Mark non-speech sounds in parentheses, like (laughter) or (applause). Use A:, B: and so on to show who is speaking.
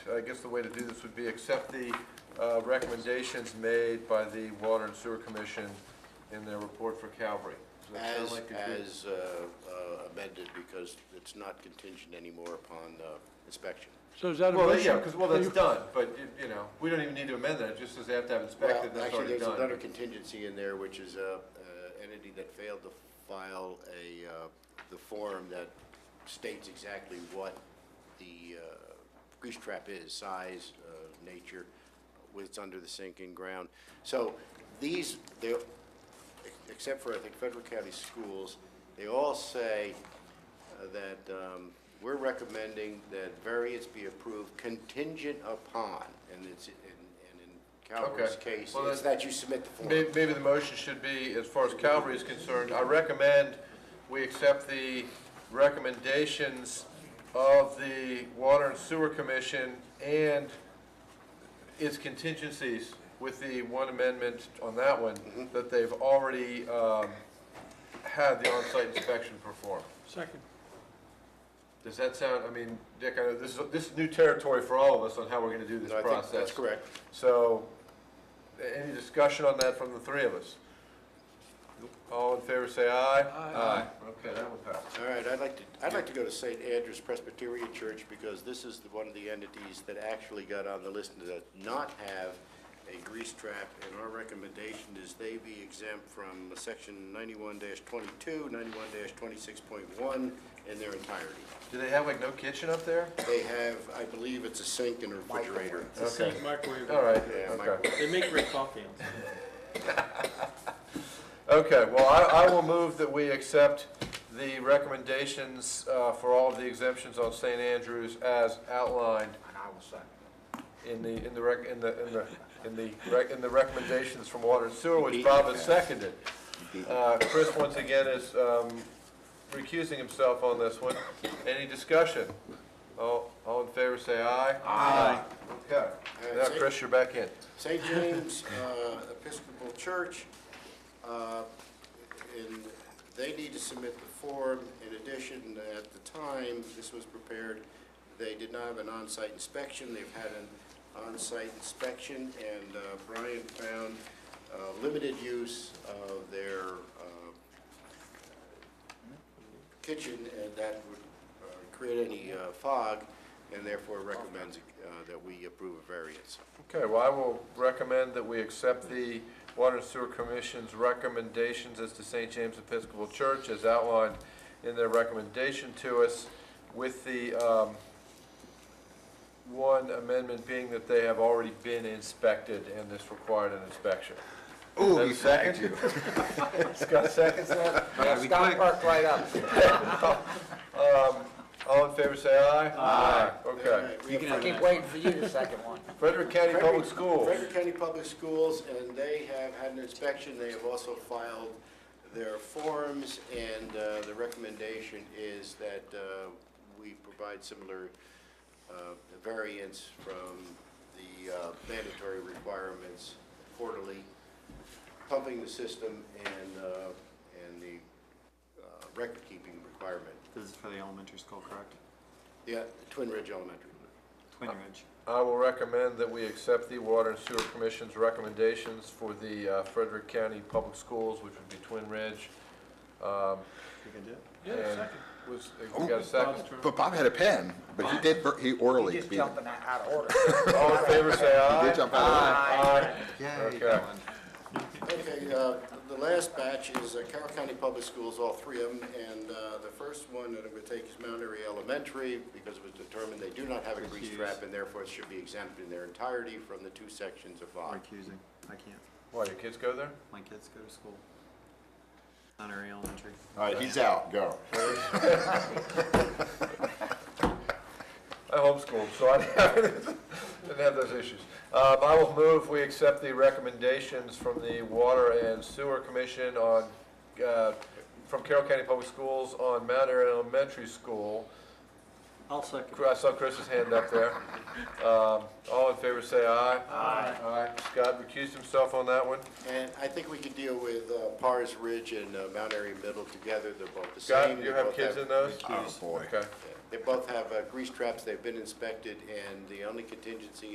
A: I guess the way to do this would be accept the uh, recommendations made by the Water and Sewer Commission in their report for Calvary. Does that sound
B: As,
A: like a good-
B: as uh, uh, amended, because it's not contingent anymore upon uh, inspection.
C: So is that a
A: Well,
C: motion?
A: yeah, because, well, that's
C: Are you-
A: done, but, you- you know, we don't even need to amend that, it just says they have to have
B: Well,
A: inspected, that's
B: actually,
A: already
B: there's
A: done.
B: another contingency in there, which is a uh, entity that failed to file a, uh, the form that states exactly what the uh, grease trap is, size, uh, nature, whether it's under the sink and ground. So these, they, except for, I think, Federal County Schools, they all say uh, that um, we're recommending that variance be approved contingent upon, and it's, and and in Calvert's
A: Okay.
B: case,
A: Well,
B: it's
A: then-
B: that you submit the form.
A: May- Maybe the motion should be, as far as Calvary is concerned, I recommend we accept the recommendations of the Water and Sewer Commission and its contingencies with the one amendment on that one,
B: Mm-hmm.
A: that they've already um, had the on-site inspection performed.
C: Second.
A: Does that sound, I mean, Dick, I know this is, this is new territory for all of us on how we're gonna do this
B: No, I think
A: process.
B: That's correct.
A: So, a- any discussion on that from the three of us? All in favor, say aye.
C: Aye.
A: Okay, that one passed.
B: All right, I'd like to, I'd like to go to St. Andrew's Presbyterian Church because this is the- one of the entities that actually got on the list and does not have a grease trap. And our recommendation is they be exempt from section ninety-one 22 91 twenty-six point one in their entirety.
A: Do they have like no kitchen up there?
B: They have, I believe it's a sink and a refrigerator.
A: Okay,
D: Microwave.
A: all right,
B: Yeah,
A: okay.
B: microwave.
D: They make great
A: (laughs)
D: coffee on Sunday.
A: Okay, well, I, I will move that we accept the recommendations uh, for all of the exemptions on St. Andrews as outlined. In the, in the rec, in the, in the, in the, rec- in the recommendations from Water and Sewer, which Bob has seconded. Uh, Chris, once again, is um, recusing himself on this one. Any discussion? All, all in favor, say aye. Aye. Okay. Now, Chris, you're back in.
B: St. James uh, Episcopal Church, uh, and they need to submit the form. In addition, at the time this was prepared, they did not have an on-site inspection. They've had an on-site inspection, and uh, Brian found uh, limited use of their uh, kitchen, and that would uh, create any uh, fog, and therefore recommends uh, that we approve a variance.
A: Okay, well, I will recommend that we accept the Water and Sewer Commission's recommendations as to St. James Episcopal Church as outlined in their recommendation to us with the, um, one amendment being that they have already been inspected and this required an inspection. Ooh, you second you. (laughs) Scott seconds that?
E: Scott perked right up.
A: (laughs) Um, all in favor, say aye. Aye.
B: All
A: Okay.
B: right, we have
E: I keep waiting for you to second one.
A: Frederick County Public
B: Frederick-
A: Schools.
B: Frederick County Public Schools, and they have had an inspection, they have also filed their forms, and uh, the recommendation is that uh, we provide similar uh, variance from the uh, mandatory requirements quarterly, pumping the system and, uh, and the uh, record-keeping requirement.
D: This is for the elementary school, correct?
B: Yeah, Twin Ridge Elementary.
D: Twin Ridge.
A: I will recommend that we accept the Water and Sewer Commission's recommendations for the uh, Frederick County Public Schools, which would be Twin Ridge. Um,
D: You can do it.
C: Yeah,
A: and
C: second.
A: Was, we uh, got a second?
F: But Bob had a pen, but he did, ver- he orally.
E: He's
F: beat it.
E: jumping out of order.
A: All in favor, say aye.
F: He did jump out of order.
A: Aye.
D: Yay,
A: Okay.
D: Colin.
B: Okay, uh, the last batch is uh, Carroll County Public Schools, all three of them, and uh, the first one that I'm going to take is Mount Airy Elementary, because it was determined they do not have a grease trap, and therefore it should be exempt in their entirety from the two sections of
D: I'm
B: VOC.
D: recusing. I can't.
A: Why, your kids go there?
D: My kids go to school. Monterey Elementary.
F: All right,
B: Uh,
F: he's out, go.
A: I homeschooled, so I (laughs) didn't have those issues. Um, I will move, we accept the recommendations from the Water and Sewer Commission on, uh, from Carroll County Public Schools on Mount Airy Elementary School,
D: I'll second.
A: I saw Chris's hand up there. Um, All in favor, say aye. Aye. Scott recused himself on that one.
B: And I think we could deal with uh, Pars Ridge and uh, Mount Airy Middle together, they're both the same.
A: Scott,
B: they
A: you have
B: both
A: kids in those?
F: Oh, boy.
A: Okay.
B: They both have uh, grease traps, they've been inspected, and the only contingency